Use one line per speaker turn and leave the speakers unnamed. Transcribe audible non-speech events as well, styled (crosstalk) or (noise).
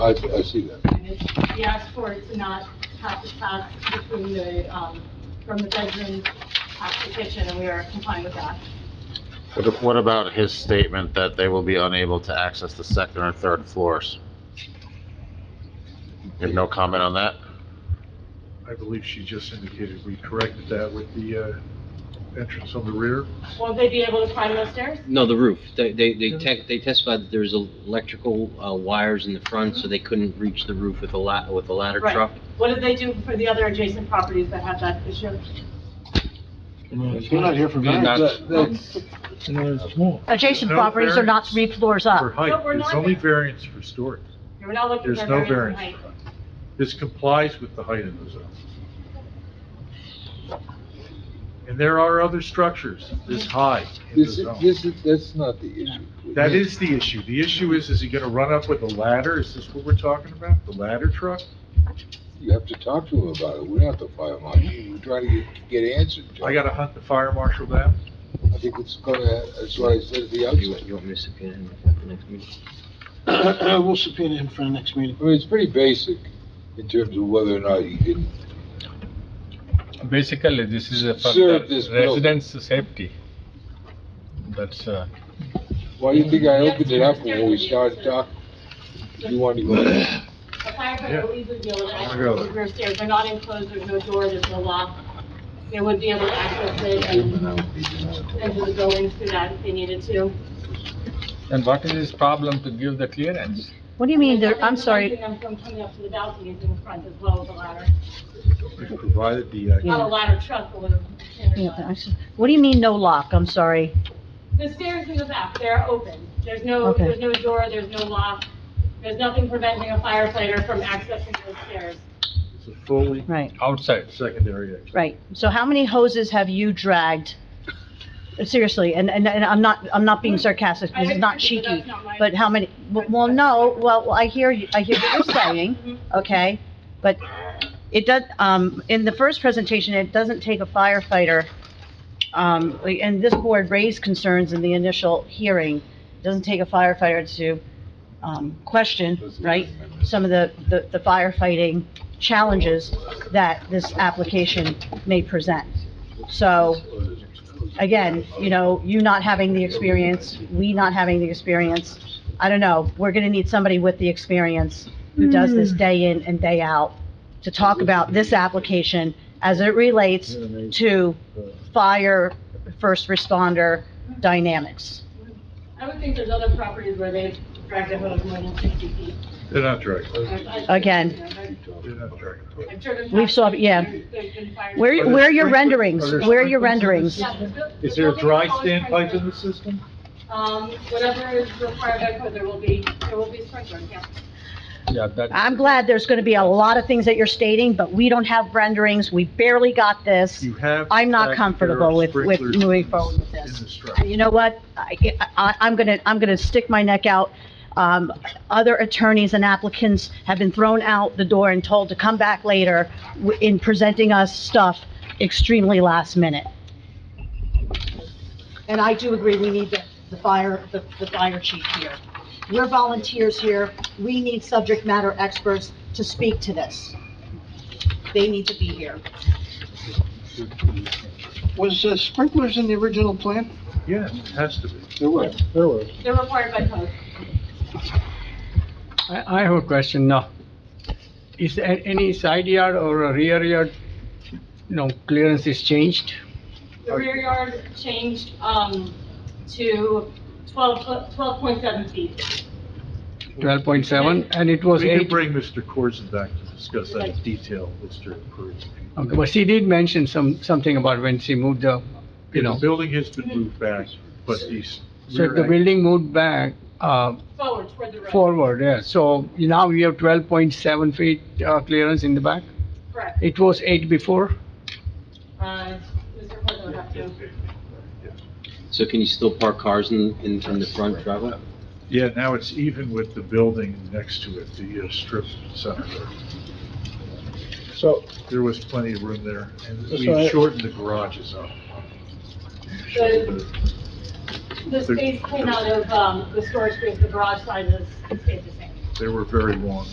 I, I see that.
And it's- We asked for it to not have to pass between the, um, from the bedroom past the kitchen, and we are complying with that.
What- What about his statement that they will be unable to access the second or third floors? You have no comment on that?
I believe she just indicated we corrected that with the uh, entrance on the rear.
Won't they be able to climb those stairs?
No, the roof. They, they, they tec- they testified that there was electrical, uh, wires in the front, so they couldn't reach the roof with a la, with a ladder
Right.
truck.
What did they do for the other adjacent properties that have that issue?
We're not here for variance.
Not-
That's-
Adjacent properties are not three floors
For
up.
But
height,
we're
there's
not-
only variance for storage.
You're not looking
There's
for
no
variance
variance.
in height.
for height. This complies with the height in the zone. And there are other structures this high in the
This,
zone.
this, is- that's not the issue.
That is the issue. The issue is, is he gonna run up with a ladder? Is this what we're talking about? The ladder truck?
You have to talk to him about it. We're not the fire marshal. We're trying to get, get answers. Joe.
I gotta hunt the fire marshal down?
I think it's gonna, that's what I said at the
Do you
outset.
want, you want me to subpoena him at the next meeting?
We'll subpoena him for the next meeting.
I mean, it's pretty basic in terms of whether or not you can,
Basically, this is uh, for
Sir,
the
this bill-
residents' safety. That's, uh,
why do you think I opened it up when we started talking? You want to go, ahead.
The firefighter will easily be able to
Yeah.
access the rear stairs. They're not enclosed, there's no door, there's no lock. They would be able to access it and enter the building through that if they needed to.
and what is his problem to give the clearance?
What do you mean, there, I'm
Preventing
sorry,
them from coming up to the balconies in the front as well as the ladder.
We provided the, uh,
Not a ladder truck, but a standard
yeah,
ladder.
I s- what do you mean no lock? I'm sorry.
The stairs in the back, they're open. There's no,
Okay.
there's no door, there's no lock. There's nothing preventing a firefighter from accessing those stairs.
it's a fully
Right,
Outside,
secondary exit.
right. So how many hoses have you dragged? Seriously, and, and, and I'm not, I'm not being sarcastic,
I
this is not
agree, but
cheeky,
that's not my-
but how many, well, no, well, I hear, you- I hear what you're saying,
Mhm.
okay? But it does, um, in the first presentation, it doesn't take a firefighter, um, like, and this board raised concerns in the initial hearing. It Doesn't take a firefighter to, um, question, right, some of the, the the firefighting challenges that this application may present. So,
(clears throat)
again, you know, you not having the experience, we not having the experience, I don't know, we're gonna need somebody with the experience who does this day in and day out to talk about this application as it relates to fire first responder dynamics.
I would think there's other properties where they've dragged a hose more than sixty feet.
They're not dragging.
I've- I've-
Again.
you know, I've-
They're not dragging.
I've driven
We've
past
saw-
them.
yeah.
There's- there's been fires.
Where,
there
where are your
sprinklers-
renderings?
are there
Where are your
sprinklers
renderings?
in
Yeah, the buil- the
Is there a
building
dry
always
standpipe
sprinkled.
in the system?
Um, whatever is required by code, there will be, there will be sprinklers, yeah.
yeah, that,
I'm glad there's gonna be a lot of things that you're stating, but we don't have renderings, we barely got this.
You have.
I'm not
fact,
comfortable
there are
with- with
sprinklers in
moving
the-
forward with this.
in the structure.
And Uh, you know what? I, I, I'm gonna, I'm gonna stick my neck out. Um, other attorneys and applicants have been thrown out the door and told to come back later w- in presenting us stuff extremely last minute. And I do agree, we need the, the fire, the, the fire chief here. We're volunteers here. We need subject matter experts to speak to this. They need to be here.
Was uh, sprinklers in the original plan?
Yes, it has to be.
there were,
There was.
They're required by code.
I, I have a question now. Is there any side yard or a rear yard, you know, clearance is changed?
The rear yard changed, um, to twelve, twelve point seven feet.
Twelve point seven, and it was
We can
eight.
bring Mr. Corson back to discuss that in detail, Mr. Perez.
Okay, But she did mention some, something about when she moved the, you
The
know,
building has been moved back, but these.
so if the building moved back, uh,
Forward toward the road.
forward, yeah, so now we have twelve point seven feet, uh, clearance in the back.
Correct.
It was eight before,
Uh, Mr. Corzo would have to.
So can you still park cars in, in, in the front driveway?
Yeah, now it's even with the building next to it, the uh, strip center.
So,
There was plenty of room there, and
So
we
I-
shortened the garages up.
The, the space came out of, um, the storage space, the garage size is, stayed the same.
They were very long.